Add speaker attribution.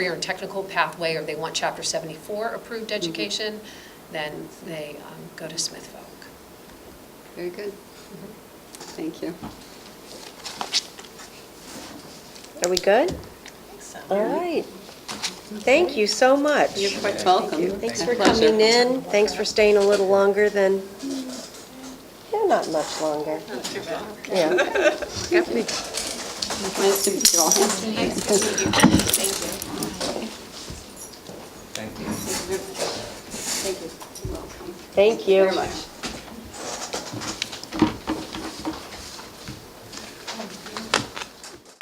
Speaker 1: career and technical pathway, or they want Chapter 74 approved education, then they um, go to Smith Folk.
Speaker 2: Very good. Thank you.
Speaker 3: Are we good? All right. Thank you so much.
Speaker 2: You're quite welcome.
Speaker 3: Thanks for
Speaker 2: My pleasure.
Speaker 3: coming in. Thanks for staying a little longer than, yeah, not much longer. Yeah.
Speaker 2: Nice to meet you all.
Speaker 4: Thank you.
Speaker 2: Thank you. You're welcome.
Speaker 3: Thank you.
Speaker 2: Very much.